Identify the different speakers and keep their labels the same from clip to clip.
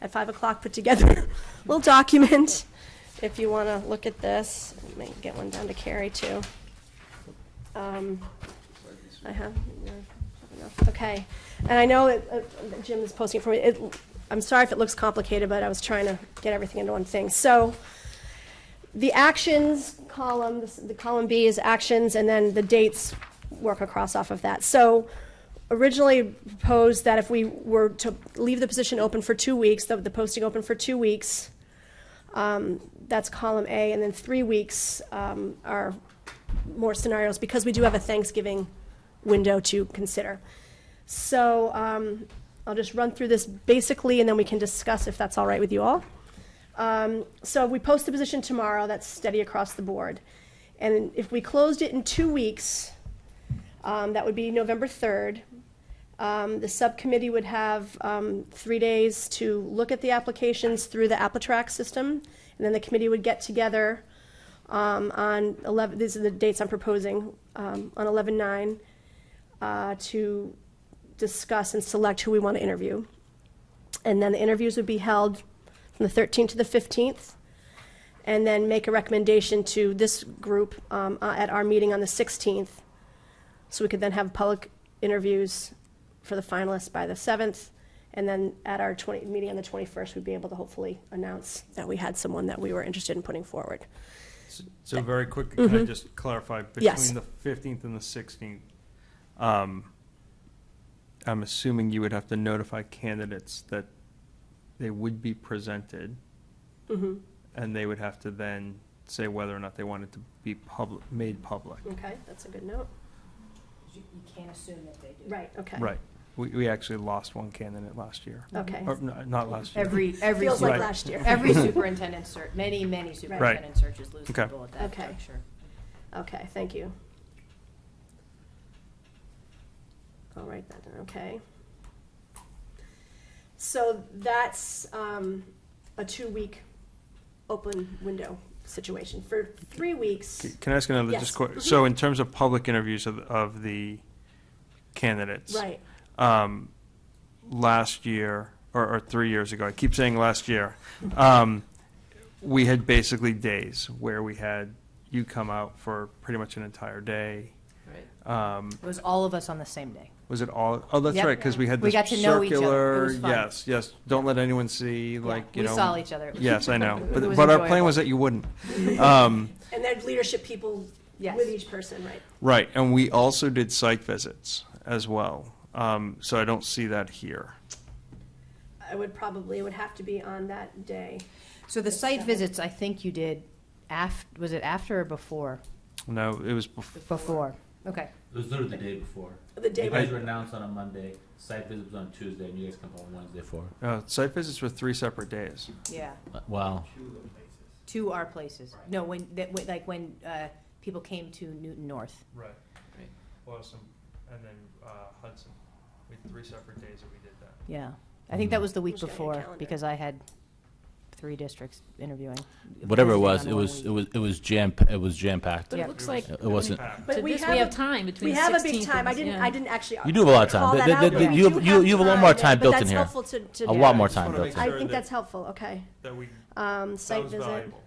Speaker 1: at 5 o'clock, put together a little document, if you want to look at this. May get one down to Carrie, too. Um, I have, no, I don't know. okay. And I know it- uh, Jim is posting it for me. It- I'm sorry if it looks complicated, but I was trying to get everything into one thing. So the actions column, this- the column B is actions, and then the dates work across off of that. So originally proposed that if we were to leave the position open for two weeks, the the posting open for two weeks, um, that's column A, and then three weeks um, are more scenarios, because we do have a Thanksgiving window to consider. So um, I'll just run through this basically, and then we can discuss if that's all right with you all. Um, So we post the position tomorrow, that's steady across the board. And if we closed it in two weeks, um, that would be November 3rd. Um, The subcommittee would have um, three days to look at the applications through the AppleTrack system, and then the committee would get together um, on 11, these are the dates I'm proposing, um, on 11/9, uh, to discuss and select who we want to interview. And then the interviews would be held from the 13th to the 15th, and then make a recommendation to this group um, uh, at our meeting on the 16th, so we could then have public interviews for the finalists by the 7th, and then at our 20, meeting on the 21st, we'd be able to hopefully announce that we had someone that we were interested in putting forward.
Speaker 2: S- So very quick, can I just clarify?
Speaker 1: Mm-hmm. Yes.
Speaker 2: Between the 15th and the 16th, um, I'm assuming you would have to notify candidates that they would be presented.
Speaker 1: Mm-hmm.
Speaker 2: And they would have to then say whether or not they wanted to be public, made public.
Speaker 1: Okay, that's a good note.
Speaker 3: You you can't assume that they do.
Speaker 1: Right, okay.
Speaker 2: Right. We, we actually lost one candidate last year.
Speaker 1: Okay.
Speaker 2: Or, no, not last year.
Speaker 3: Every, every,
Speaker 1: Feels like
Speaker 2: Right.
Speaker 3: super-
Speaker 1: last year.
Speaker 3: every superintendent search, many, many superintendent searches lose
Speaker 2: Okay.
Speaker 3: people at that
Speaker 1: Okay.
Speaker 3: juncture.
Speaker 1: Okay, thank you. I'll write that down, okay. So that's um, a two-week open window situation. For three weeks,
Speaker 2: C- Can I ask another,
Speaker 1: Yes. Mm-hmm.
Speaker 2: just quick, so in terms of public interviews of, of the candidates?
Speaker 1: right,
Speaker 2: um, last year, or, or three years ago, I keep saying last year, um, we had basically days where we had you come out for pretty much an entire day. Um,
Speaker 3: It was all of us on the same day.
Speaker 2: was it all, oh, that's
Speaker 3: Yep.
Speaker 2: right, because we had
Speaker 3: We
Speaker 2: this
Speaker 3: got to know each other. It
Speaker 2: circular,
Speaker 3: was fun.
Speaker 2: yes, yes, don't let anyone see,
Speaker 3: Yeah,
Speaker 2: like, you know.
Speaker 3: We saw each other. It was-
Speaker 2: Yes, I know,
Speaker 3: it
Speaker 2: but,
Speaker 3: was
Speaker 2: but our plan
Speaker 3: enjoyable.
Speaker 2: was that you wouldn't. Um,
Speaker 1: and then leadership people
Speaker 3: Yes.
Speaker 1: with each person, right?
Speaker 2: Right, and we also did site visits as well, um, so I don't see that here.
Speaker 1: I would probably, it would have to be on that day.
Speaker 3: So the site visits, I think you did af, was it after or before?
Speaker 2: No, it was before.
Speaker 3: Before, okay.
Speaker 4: It was literally the day before.
Speaker 1: The day
Speaker 4: You
Speaker 1: was-
Speaker 4: guys were announced on a Monday, site visit was on Tuesday, and you guys come home Wednesday for.
Speaker 2: Uh, site visits were three separate days.
Speaker 3: Yeah,
Speaker 4: Wow.
Speaker 3: to our places. No, when, that, when- like when, uh, people came to Newton North.
Speaker 2: Right.
Speaker 4: Right.
Speaker 2: Awesome. And then uh, Hudson. We had three separate days that we did that.
Speaker 3: Yeah, I think that
Speaker 5: Mm-hmm.
Speaker 3: was the week
Speaker 1: Just get your
Speaker 3: before,
Speaker 1: calendar.
Speaker 3: because I had three districts interviewing.
Speaker 5: Whatever it
Speaker 3: posting
Speaker 5: was,
Speaker 3: on
Speaker 5: it
Speaker 3: one
Speaker 5: was,
Speaker 3: week.
Speaker 5: it was, it was jam, it was jam packed.
Speaker 6: But
Speaker 3: Yeah.
Speaker 6: it looks like,
Speaker 5: It wasn't,
Speaker 6: so
Speaker 1: But we
Speaker 6: this,
Speaker 1: have
Speaker 6: we have
Speaker 1: a-
Speaker 6: time between
Speaker 1: We
Speaker 6: the 16th and.
Speaker 1: have a big time. I didn't,
Speaker 6: yeah.
Speaker 1: I didn't actually.
Speaker 5: You do have a lot of
Speaker 1: call
Speaker 5: time.
Speaker 1: that
Speaker 5: Th-
Speaker 1: out,
Speaker 5: th-
Speaker 1: but
Speaker 5: th-
Speaker 1: we
Speaker 5: you-
Speaker 1: do
Speaker 5: you- you have a lot more
Speaker 1: time,
Speaker 5: time
Speaker 1: but
Speaker 5: built
Speaker 1: that's
Speaker 5: in here.
Speaker 1: helpful to- to
Speaker 5: A
Speaker 1: do.
Speaker 5: lot more
Speaker 2: Just wanna
Speaker 5: time
Speaker 2: make
Speaker 5: built in.
Speaker 1: I
Speaker 2: sure
Speaker 1: think
Speaker 2: that-
Speaker 1: that's helpful, okay.
Speaker 2: That we
Speaker 1: Um,
Speaker 2: that
Speaker 1: site
Speaker 2: was
Speaker 1: visit.
Speaker 2: valuable.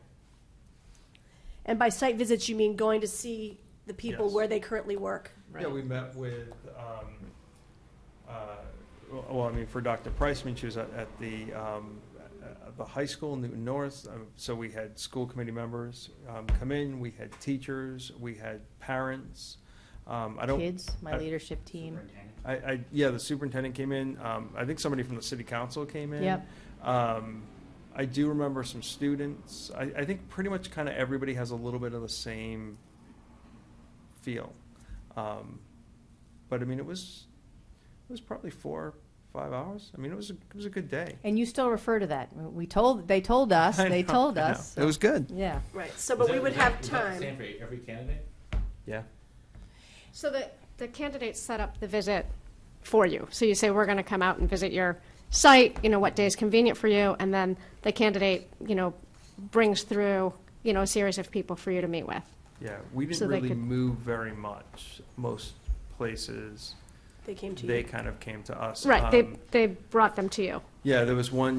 Speaker 1: And by site visits, you mean going to see the people
Speaker 2: Yes.
Speaker 1: where they currently work?
Speaker 2: Yeah, we met with. Um, uh, well, well, I mean, for Dr. Priceman, she was at, at the um, at the high school, Newton North. Um, so we had school committee members um, come in. We had teachers. We had parents. Um, I don't.
Speaker 3: Kids, my
Speaker 2: I-
Speaker 3: leadership team.
Speaker 2: I, I, yeah, the superintendent came in. Um, I think somebody from the city council came in.
Speaker 3: Yep.
Speaker 2: Um, I do remember some students. I, I think pretty much kind of everybody has a little bit of the same feel. Um, but I mean, it was, it was probably four, five hours. I mean, it was, a- it was a good day.
Speaker 3: And you still refer to that. We told, they told us,
Speaker 2: I
Speaker 3: they
Speaker 2: know,
Speaker 3: told
Speaker 2: I know.
Speaker 3: us.
Speaker 2: It was good.
Speaker 3: Yeah.
Speaker 1: Right, so, but we would have time.
Speaker 4: Same for every candidate?
Speaker 2: Yeah.
Speaker 7: So the, the candidates set up the visit for you. So you say, we're going to come out and visit your site, you know, what day is convenient for you, and then the candidate, you know, brings through, you know, a series of people for you to meet with.
Speaker 2: Yeah. We didn't
Speaker 7: So they
Speaker 2: really
Speaker 7: could-
Speaker 2: move very much. Most places,
Speaker 1: They came to you.
Speaker 2: they kind of came to us.
Speaker 7: Right, they,
Speaker 2: Um,
Speaker 7: they brought them to you.
Speaker 2: Yeah, there was one